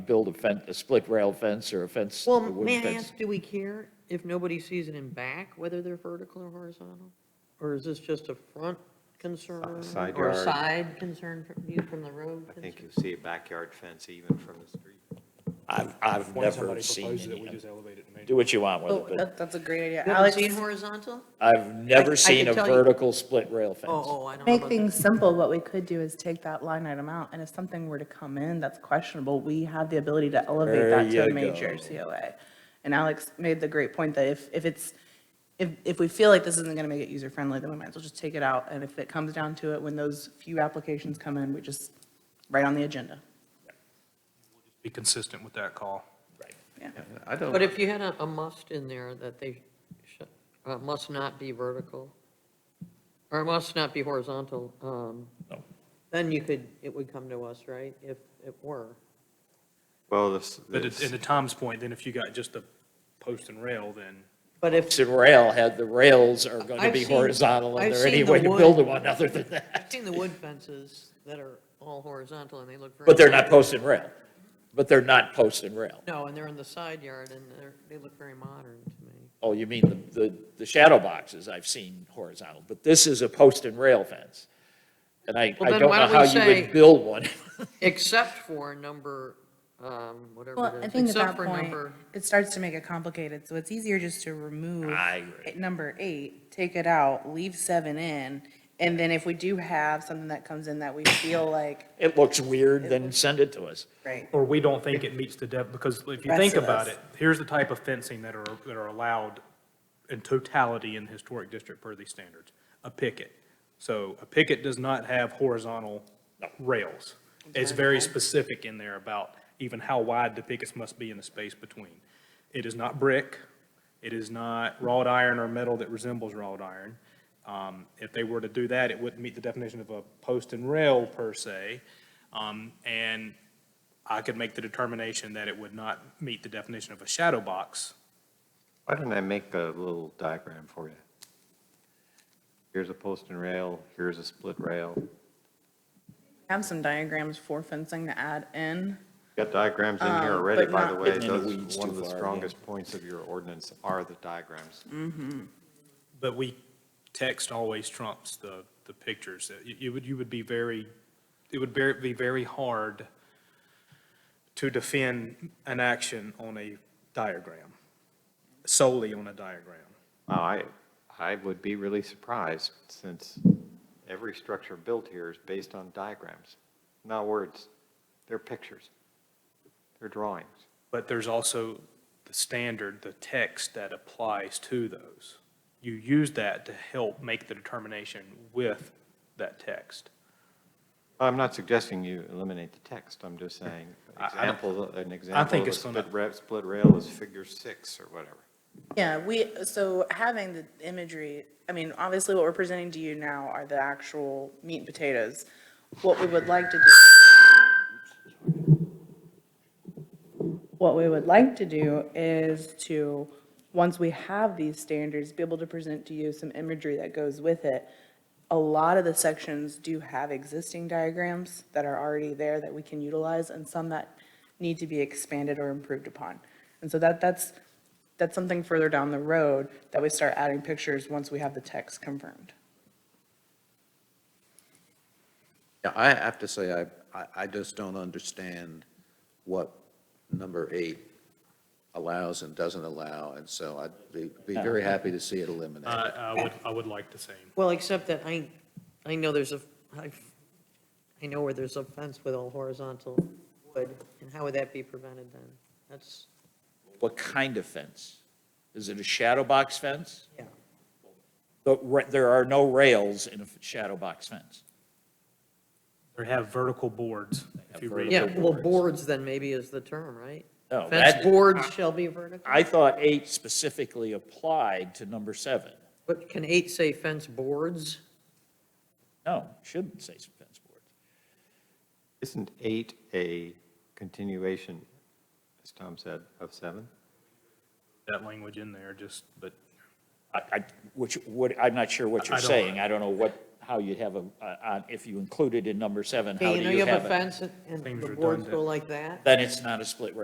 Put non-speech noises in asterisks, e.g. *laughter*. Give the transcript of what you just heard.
build a fence, a split rail fence or a fence, a Well, wooden may I fence. ask, do we care if nobody sees it in back, whether they're vertical or horizontal? Or is this just a front concern? side Or a yard. side concern from view from the road? I think you concern? see a backyard fence even from the street. I've, I've When never somebody seen proposes it, we any, just elevate it and make do what you want with Oh, it, but that, that's a great idea. You haven't Alex, seen horizontal? I've never I seen can a tell you- vertical split rail fence. Oh, oh, I don't know make about that. things simple, what we could do is take that line item out, and if something were to come in that's questionable, we have the ability to There elevate that to you a major go. COA. And Alex made the great point that if, if it's, if, if we feel like this isn't gonna make it user-friendly, then we might as well just take it out, and if it comes down to it, when those few applications come in, we just, right on the agenda. be consistent with that call. I don't. But if you had a, a must in there that they should, uh, must not be vertical, or must not be horizontal, um, No. then you could, it would come to us, right, if it were? Well, this, But it- this- and to Tom's point, then if you got just a post and rail, then But if, Split rail had, the rails are going to I've be seen- horizontal and I've there any seen the way to wood. build one other than that. I've seen the wood fences that are all horizontal and they look *laughs* very. But they're not post and rail. But they're not post and rail. No, and they're in the side yard, and they're, they look very modern to me. Oh, you mean the- the, the shadow boxes I've seen horizontal, but this is a post and rail fence. And I, Well, I then don't why know don't we how you say- would build *laughs* one. Except for number, um, Well, whatever I it think is, at except that for point, number, it starts to make it complicated, so it's easier just to remove. I agree. it- Number eight, take it out, leave seven in, and then if we do have something that comes in that we feel like, It looks weird, then send it to us. right, or we don't think it meets the def, because if you Rest think of about us. it, here's the type of fencing that are, that are allowed in totality in the historic district per these standards, a picket. So a picket does not have horizontal rails. It's very specific in there about even how wide the pickets must be in the space between. It is not brick, it is not wrought iron or metal that resembles wrought iron. Um, If they were to do that, it wouldn't meet the definition of a post and rail per se. Um, And I could make the determination that it would not meet the definition of a shadow box. why don't I make a little diagram for you? Here's a post and rail, here's a split rail. have some diagrams for fencing to add in. Got diagrams in here Um, already, but by the not- way. Getting into Those, weeds one too of the far, yeah. strongest points of your ordinance are the diagrams. But we, text always trumps the, the pictures. You- You would, you would be very, it would ver- be very hard to defend an action on a diagram, solely on a diagram. Wow, I, I would be really surprised since every structure built here is based on diagrams, not words. They're pictures. They're drawings. But there's also the standard, the text that applies to those. You use that to help make the determination with that text. I'm not suggesting you eliminate the text, I'm just saying, I- I don't- example, an example of think a it's gonna- split rail, split rail is figure six or whatever. Yeah, we, so having the imagery, I mean, obviously what we're presenting to you now are the actual meat and potatoes. What we would like to do. What we would like to do is to, once we have these standards, be able to present to you some imagery that goes with it. A lot of the sections do have existing diagrams that are already there that we can utilize and some that need to be expanded or improved upon. And so that, that's, that's something further down the road that we start adding pictures once we have the text confirmed. Yeah, I have to say, I, I, I just don't understand what number eight allows and doesn't allow, and so I'd be, be very happy to see it eliminated. I, I would, I would like the same. well, except that I, I know there's a, I, I know where there's a fence with all horizontal wood, and how would that be prevented then? That's, What kind of fence? Is it a shadow box fence? Yeah. But ra- there are no rails in a f- shadow box fence. They have vertical boards, if you read. yeah, well, boards. boards then maybe is the term, right? No, Fence that- boards shall be vertical, I thought eight specifically applied to number seven. but can eight say fence boards? No, shouldn't say fence boards. Isn't eight a continuation, as Tom said, of seven? that language in there, just, but I, I, which, what, I'm not sure what I you're don't- saying. I don't know what how you'd have a, uh, uh, if you included in number seven, how Okay, do you know you you have have a it? fence and- and Seems the boards redundant. go like that? Then it's not a split rail.